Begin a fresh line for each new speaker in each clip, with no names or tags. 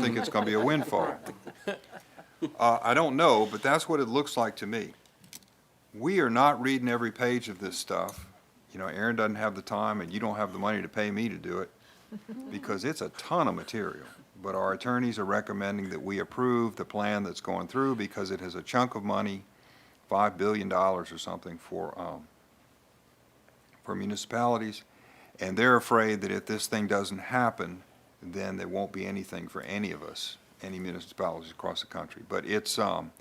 think it's gonna be a windfall. Uh, I don't know, but that's what it looks like to me. We are not reading every page of this stuff. You know, Aaron doesn't have the time, and you don't have the money to pay me to do it, because it's a ton of material. But our attorneys are recommending that we approve the plan that's going through, because it has a chunk of money, $5 billion or something for, um, for municipalities, and they're afraid that if this thing doesn't happen, then there won't be anything for any of us, any municipalities across the country. But it's, um,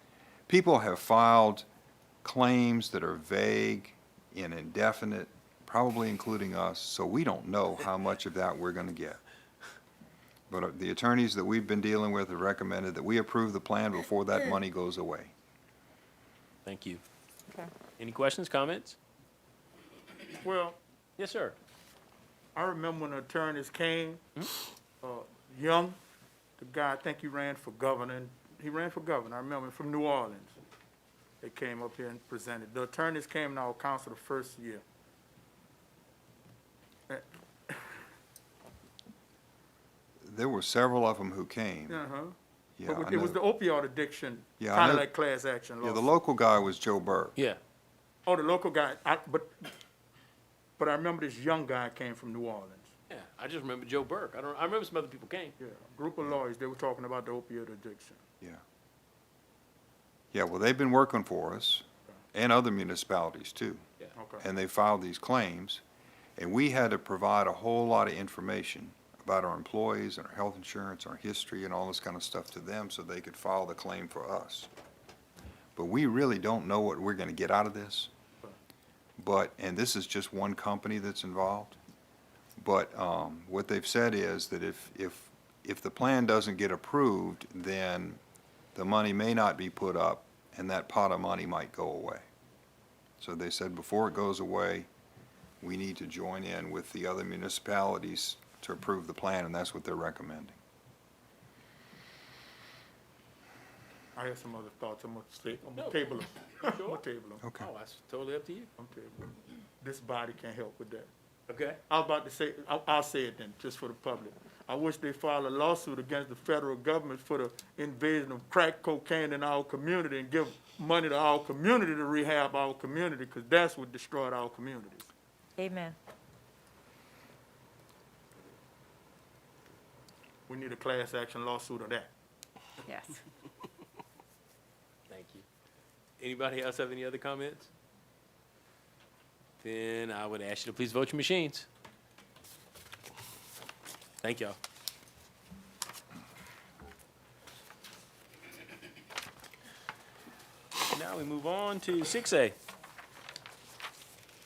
people have filed claims that are vague and indefinite, probably including us, so we don't know how much of that we're gonna get. But uh, the attorneys that we've been dealing with have recommended that we approve the plan before that money goes away.
Thank you.
Okay.
Any questions, comments?
Well,
Yes, sir.
I remember when the attorneys came,
Hmm?
uh, Young, the guy, I think he ran for governor, and he ran for governor, I remember, from New Orleans. They came up here and presented. The attorneys came to our council the first year.
There were several of them who came.
Uh-huh.
Yeah,
But
I
it was the
know.
opioid addiction,
Yeah, I
kind of
know.
like class action
Yeah, the
law.
local guy was Joe Burke.
Yeah.
Oh, the local guy, I, but, but I remember this young guy came from New Orleans.
Yeah, I just remember Joe Burke. I don't, I remember some other people came.
Yeah, a group of lawyers, they were talking about the opioid addiction.
Yeah. Yeah, well, they've been working for us and other municipalities too.
Okay,
And they filed these claims. And we had to provide a whole lot of information about our employees and our health insurance, our history and all this kind of stuff to them so they could file the claim for us. But we really don't know what we're gonna get out of this. But, and this is just one company that's involved. But um, what they've said is that if, if, if the plan doesn't get approved, then the money may not be put up, and that pot of money might go away. So they said, before it goes away, we need to join in with the other municipalities to approve the plan, and that's what they're recommending.
I had some other thoughts, I'm gonna stay, I'm
No.
gonna table them, I'm
Sure.
gonna table them.
Okay.
Oh, that's totally up to you.
I'm terrible. This body can't help with that.
Okay.
I was about to say, I- I'll say it then, just for the public. I wish they filed a lawsuit against the federal government for the invasion of crack cocaine in our community and give money to our community to rehab our community, because that's what destroyed our communities.
Amen.
We need a class action lawsuit of that.
Yes.
Thank you. Anybody else have any other comments? Then I would ask you to please vote your machines. Thank y'all. Now we move on to six A.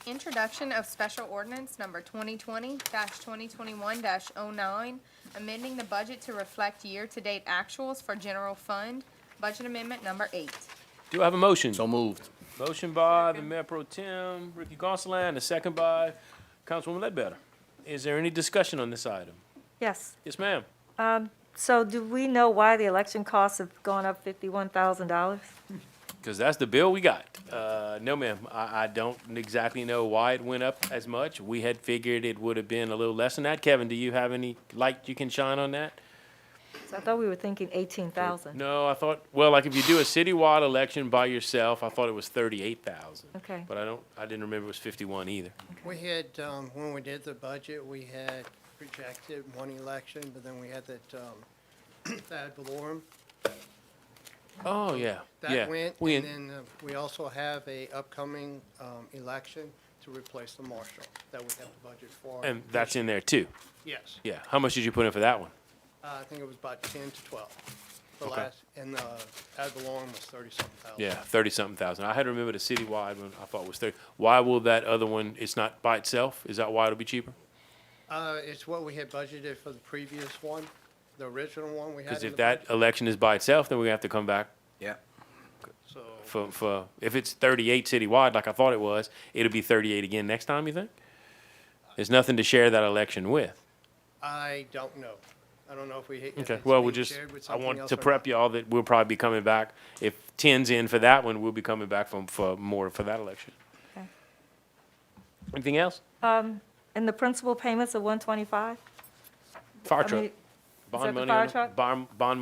Introduction of Special Ordinance Number 2020-2021-09, amending the budget to reflect year-to-date actuals for general fund, budget amendment number eight.
Do I have a motion?
So moved.
Motion by the Mayor Pro Tem, Ricky Gonsalas, a second by Councilwoman Ledbetter. Is there any discussion on this item?
Yes.
Yes, ma'am.
So do we know why the election costs have gone up fifty-one thousand dollars?
Because that's the bill we got. Uh, no, ma'am, I, I don't exactly know why it went up as much. We had figured it would have been a little less than that. Kevin, do you have any light you can shine on that?
So I thought we were thinking eighteen thousand.
No, I thought, well, like if you do a citywide election by yourself, I thought it was thirty-eight thousand.
Okay.
But I don't, I didn't remember it was fifty-one either.
We had, um, when we did the budget, we had projected one election, but then we had that, um, ad valorem.
Oh, yeah, yeah.
That went,
We
and
in-
then uh, we also have a upcoming, um, election to replace the marshal that we have the budget for.
And that's in there too.
Yes,
Yeah. How much did you put in for that one?
Uh, I think it was about ten to twelve. The
Okay.
last, and, uh, ad valorem was thirty-something thousand.
Yeah, thirty something thousand. I had to remember the citywide one. I thought was thirty. Why will that other one? It's not by itself. Is that why it'll be cheaper?
Uh, it's what we had budgeted for the previous one, the original one we had.
Because
in
if
the
that election is by itself, then we have to come back
Yeah.
budget, So,
for for if it's thirty eight citywide, like I thought it was, it'll be thirty eight again next time. You think? There's nothing to share that election with.
I don't know. I don't know if we. if
Okay.
it's
Well,
being
we'll just.
shared with
I
something
want
else
to
or not.
prep y'all that we'll probably be coming back. If tens in for that one, we'll be coming back from for more for that election.
Okay.
Anything else?
And the principal payments of one twenty-five?
Fire truck. Bond
the
money
fire
on,
truck?
bond, bond